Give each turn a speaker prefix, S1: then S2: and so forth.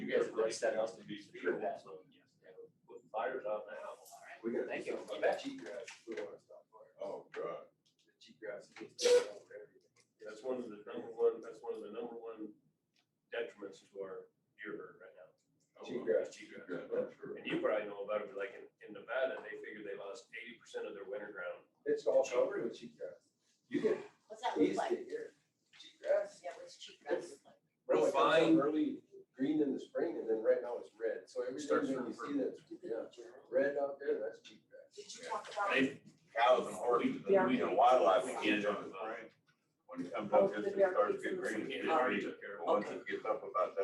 S1: place that house to be secured that, so, with fires on the house.
S2: We gotta
S3: Thank
S2: do
S3: you.
S2: something about that cheat grass, we don't wanna stop fire.
S4: Oh, God.
S2: The cheat grass is just taking over everything.
S1: That's one of the number one, that's one of the number one detriments to our deer herd right now.
S2: Cheat grass.
S1: It's cheatgrass.
S4: Yeah, that's true.
S1: And you probably know about it, but like in, in Nevada, they figure they lost eighty percent of their winter ground.
S2: It's all covered with cheat grass. You can
S3: What's that look
S2: easily
S3: like?
S2: get here, cheat grass.
S3: Yeah, what's cheap grass look like?
S2: Bro, it comes up
S1: Fine.
S2: early green in the spring and then right now it's red, so every time
S1: Starts
S2: you
S1: turning
S2: see that, yeah, red out there, that's cheat grass.
S3: Did you talk about?
S4: They, cows and horses, and we and wildlife begin on the ground. When it comes up, just it starts to get green, it's green. But Once it gets up about that